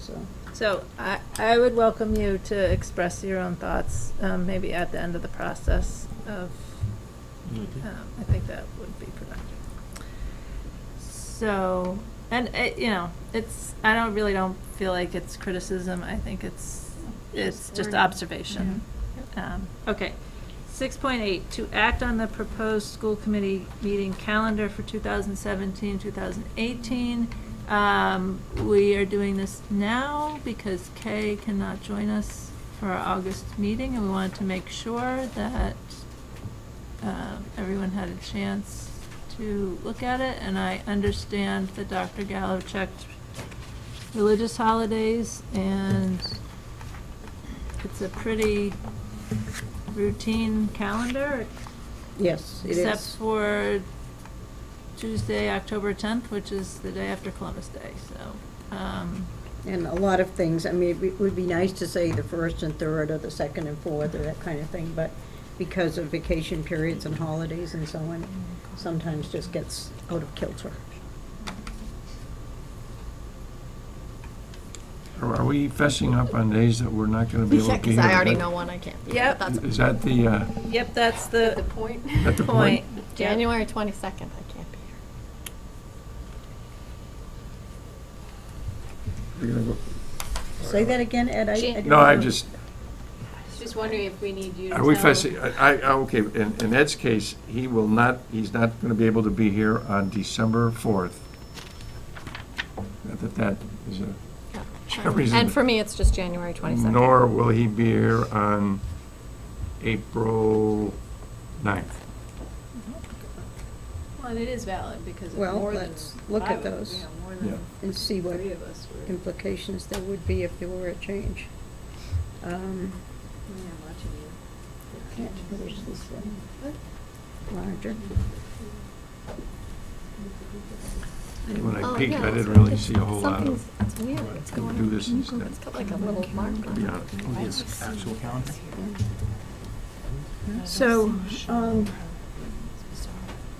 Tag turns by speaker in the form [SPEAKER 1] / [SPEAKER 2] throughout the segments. [SPEAKER 1] so.
[SPEAKER 2] So I, I would welcome you to express your own thoughts, um, maybe at the end of the process of,
[SPEAKER 3] Mm-hmm.
[SPEAKER 2] um, I think that would be productive. So, and it, you know, it's, I don't, really don't feel like it's criticism, I think it's, it's just observation. Um, Okay. Six point eight, to act on the proposed school committee meeting calendar for 2017-2018. Um, we are doing this now because Kay cannot join us for our August meeting, and we wanted to make sure that, uh, everyone had a chance to look at it, and I understand that Dr. Gallo checked religious holidays, and it's a pretty routine calendar,
[SPEAKER 1] Yes, it
[SPEAKER 2] except
[SPEAKER 1] is.
[SPEAKER 2] for Tuesday, October 10th, which is the day after Columbus Day, so, um,
[SPEAKER 1] And a lot of things, I mean, it would be nice to say the first and third, or the second and fourth, or that kind of thing, but because of vacation periods and holidays and so on, sometimes just gets out of kilter.
[SPEAKER 3] Are are we fessing up on days that we're not going to be able
[SPEAKER 4] Yeah,
[SPEAKER 3] to
[SPEAKER 4] because
[SPEAKER 3] hear?
[SPEAKER 4] I already know one I can't be.
[SPEAKER 2] Yep.
[SPEAKER 4] but That's
[SPEAKER 3] Is that the, uh,
[SPEAKER 2] yep, that's the
[SPEAKER 4] point.
[SPEAKER 3] that the
[SPEAKER 2] point.
[SPEAKER 3] point?
[SPEAKER 4] January 22nd, I can't be here.
[SPEAKER 3] You're gonna go-
[SPEAKER 1] Say that again, Ed, I- I.
[SPEAKER 5] Jan-
[SPEAKER 1] didn't
[SPEAKER 3] No, I
[SPEAKER 1] know.
[SPEAKER 3] just,
[SPEAKER 5] Just wondering if we need you to
[SPEAKER 3] are we
[SPEAKER 5] tell-
[SPEAKER 3] fessing, I, I- okay, in in Ed's case, he will not, he's not going to be able to be here on December 4th. Not That that is a,
[SPEAKER 4] No.
[SPEAKER 3] Sure reason.
[SPEAKER 4] And for me, it's just January 22nd.
[SPEAKER 3] nor will he be here on April 9th.
[SPEAKER 5] Well, and it is valid because of
[SPEAKER 1] Well,
[SPEAKER 5] more than
[SPEAKER 1] let's look
[SPEAKER 5] five
[SPEAKER 1] at
[SPEAKER 5] of-
[SPEAKER 1] those
[SPEAKER 5] yeah, more
[SPEAKER 3] Yeah.
[SPEAKER 5] than
[SPEAKER 1] And see what
[SPEAKER 5] three of us were.
[SPEAKER 1] implications there would be if there were a change. Um,
[SPEAKER 5] Yeah, I'm watching you.
[SPEAKER 1] Can't finish this one. Larger.
[SPEAKER 3] When I
[SPEAKER 4] Oh,
[SPEAKER 3] peeked,
[SPEAKER 4] yeah,
[SPEAKER 3] I didn't
[SPEAKER 4] it's-
[SPEAKER 3] really
[SPEAKER 4] it's-
[SPEAKER 3] see a whole lot
[SPEAKER 4] something's-
[SPEAKER 3] of,
[SPEAKER 4] It's weird, it's
[SPEAKER 3] Can we
[SPEAKER 4] going
[SPEAKER 3] do
[SPEAKER 4] on.
[SPEAKER 3] this
[SPEAKER 4] Can you go-
[SPEAKER 3] instead?
[SPEAKER 4] It's got like a little mark
[SPEAKER 3] to
[SPEAKER 4] on
[SPEAKER 3] be
[SPEAKER 4] it.
[SPEAKER 3] honest.
[SPEAKER 6] Oh, his actual calendar?
[SPEAKER 1] So, um,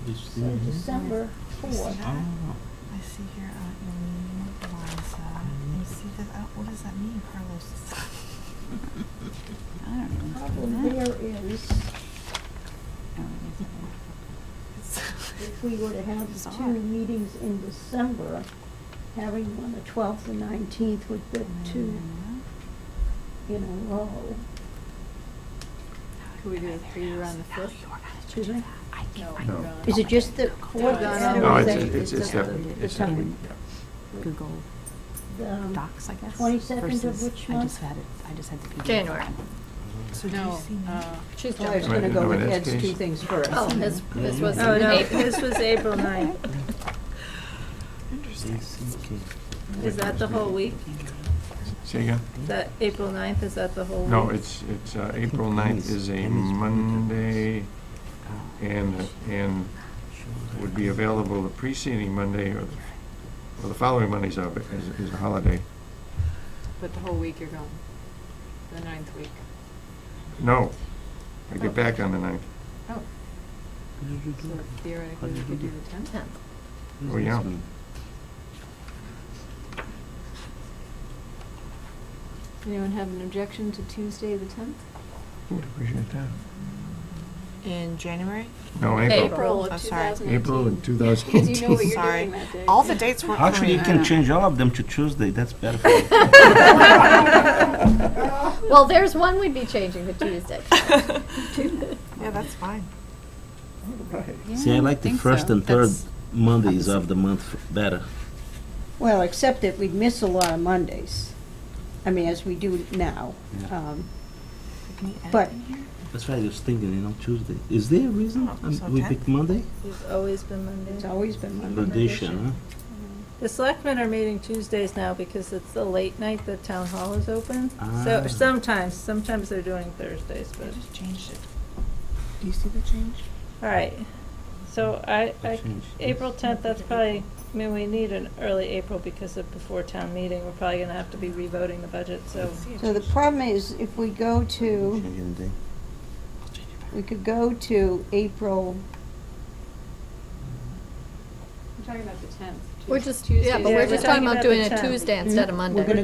[SPEAKER 6] This-
[SPEAKER 1] so December fourth.
[SPEAKER 6] Oh.
[SPEAKER 7] I see here, uh, Aunt Eileen, Liza. You see that? uh, What does that mean, Carlos? I don't know. what's going
[SPEAKER 1] problem
[SPEAKER 7] on.
[SPEAKER 1] there is,
[SPEAKER 7] Oh, it is a-
[SPEAKER 1] if we were to have the
[SPEAKER 7] Bizarre.
[SPEAKER 1] two meetings in December, having one the twelfth and nineteenth would be
[SPEAKER 7] Mm-hmm.
[SPEAKER 1] two in a row.
[SPEAKER 5] Could we do three around the fifth?
[SPEAKER 1] Excuse me?
[SPEAKER 5] No.
[SPEAKER 3] No.
[SPEAKER 5] we're on-
[SPEAKER 1] Is it just the fourth?
[SPEAKER 5] No,
[SPEAKER 1] Saturday?
[SPEAKER 3] no,
[SPEAKER 1] Is
[SPEAKER 3] it's,
[SPEAKER 1] that-
[SPEAKER 3] it's, it's
[SPEAKER 1] that
[SPEAKER 3] that,
[SPEAKER 1] the-
[SPEAKER 3] it's
[SPEAKER 1] the
[SPEAKER 3] that week,
[SPEAKER 1] time?
[SPEAKER 3] yeah.
[SPEAKER 7] Google
[SPEAKER 1] The, um,
[SPEAKER 7] Docs, I guess.
[SPEAKER 1] 22nd of
[SPEAKER 7] versus-
[SPEAKER 1] which
[SPEAKER 7] I
[SPEAKER 1] month?
[SPEAKER 7] just had it, I just had the PDF.
[SPEAKER 4] January.
[SPEAKER 7] So do you
[SPEAKER 5] No,
[SPEAKER 7] see me?
[SPEAKER 5] uh,
[SPEAKER 4] She's
[SPEAKER 1] I was
[SPEAKER 4] jumping.
[SPEAKER 1] gonna go
[SPEAKER 3] No,
[SPEAKER 1] with
[SPEAKER 3] in this
[SPEAKER 1] Ed's two
[SPEAKER 3] case-
[SPEAKER 1] things first.
[SPEAKER 4] Oh, his, his was.
[SPEAKER 2] Oh, no,
[SPEAKER 4] April.
[SPEAKER 2] his was April 9th.
[SPEAKER 7] Interesting.
[SPEAKER 2] Is that the whole week?
[SPEAKER 3] Say again?
[SPEAKER 2] Is that April 9th, is that the whole week?
[SPEAKER 3] No, it's, it's, uh, April
[SPEAKER 6] Think
[SPEAKER 3] ninth
[SPEAKER 6] Dennis-
[SPEAKER 3] is a
[SPEAKER 6] Dennis wanted
[SPEAKER 3] Monday
[SPEAKER 6] Oh,
[SPEAKER 3] and, and
[SPEAKER 6] shows
[SPEAKER 3] would
[SPEAKER 6] that.
[SPEAKER 3] be available the preceding Monday or, or the following Monday's a, is, is a holiday.
[SPEAKER 5] But the whole week you're gone, the ninth week.
[SPEAKER 3] No, I get back on the ninth.
[SPEAKER 5] Oh.
[SPEAKER 6] What did you
[SPEAKER 5] So
[SPEAKER 6] do?
[SPEAKER 3] Mm-hmm.
[SPEAKER 5] theoretically, we could do the tenth.
[SPEAKER 4] Tenth.
[SPEAKER 3] Oh, yeah.
[SPEAKER 5] Anyone have an objection to Tuesday, the tenth?
[SPEAKER 3] Would appreciate that.
[SPEAKER 8] In January?
[SPEAKER 3] No, April,
[SPEAKER 5] April
[SPEAKER 8] Oh,
[SPEAKER 5] of two
[SPEAKER 8] sorry.
[SPEAKER 5] thousand eighteen.
[SPEAKER 3] April in two thousand
[SPEAKER 5] Because you know what
[SPEAKER 3] eighteen.
[SPEAKER 5] you're
[SPEAKER 8] Sorry.
[SPEAKER 5] doing that day.
[SPEAKER 8] All the dates were coming.
[SPEAKER 6] Actually, you can change all of them to Tuesday, that's better for you.
[SPEAKER 4] Well, there's one we'd be changing to Tuesday.
[SPEAKER 8] Yeah, that's fine.
[SPEAKER 6] See, I like the first and third Mondays of the month f- better.
[SPEAKER 1] Well, except that we'd miss a lot of Mondays. I mean, as we do now.
[SPEAKER 6] Yeah.
[SPEAKER 1] Um,
[SPEAKER 7] Can you add
[SPEAKER 1] But-
[SPEAKER 7] it in here?
[SPEAKER 6] That's why I was thinking, you know, Tuesday. Is there a reason
[SPEAKER 8] Oh,
[SPEAKER 6] um,
[SPEAKER 8] so
[SPEAKER 6] we
[SPEAKER 8] ten?
[SPEAKER 6] pick Monday?
[SPEAKER 2] It's always been
[SPEAKER 1] It's
[SPEAKER 2] Monday.
[SPEAKER 1] always been Monday.
[SPEAKER 6] Tradition, huh?
[SPEAKER 2] The selectmen are meeting Tuesdays now because it's the late night that town hall is open. So
[SPEAKER 6] Ah.
[SPEAKER 2] sometimes, sometimes they're doing Thursdays,
[SPEAKER 7] I
[SPEAKER 2] but,
[SPEAKER 7] just changed it. Do you see the change?
[SPEAKER 2] all right. So I,
[SPEAKER 6] I
[SPEAKER 2] I,
[SPEAKER 6] changed this.
[SPEAKER 2] April tenth, that's probably, I mean, we need an early April because of before town meeting. We're probably gonna have to be revoting the budget, so.
[SPEAKER 1] So the problem is, if we go to,
[SPEAKER 6] Changing the day.
[SPEAKER 1] we could go to April,
[SPEAKER 5] I'm talking about the tenth.
[SPEAKER 4] We're just, yeah, but
[SPEAKER 2] Yeah,
[SPEAKER 4] we're
[SPEAKER 2] we're
[SPEAKER 4] just
[SPEAKER 2] talking
[SPEAKER 4] talking about
[SPEAKER 2] about the
[SPEAKER 4] doing a
[SPEAKER 2] tenth.
[SPEAKER 4] Tuesday instead of
[SPEAKER 1] Mhm.
[SPEAKER 4] Monday.
[SPEAKER 1] We're gonna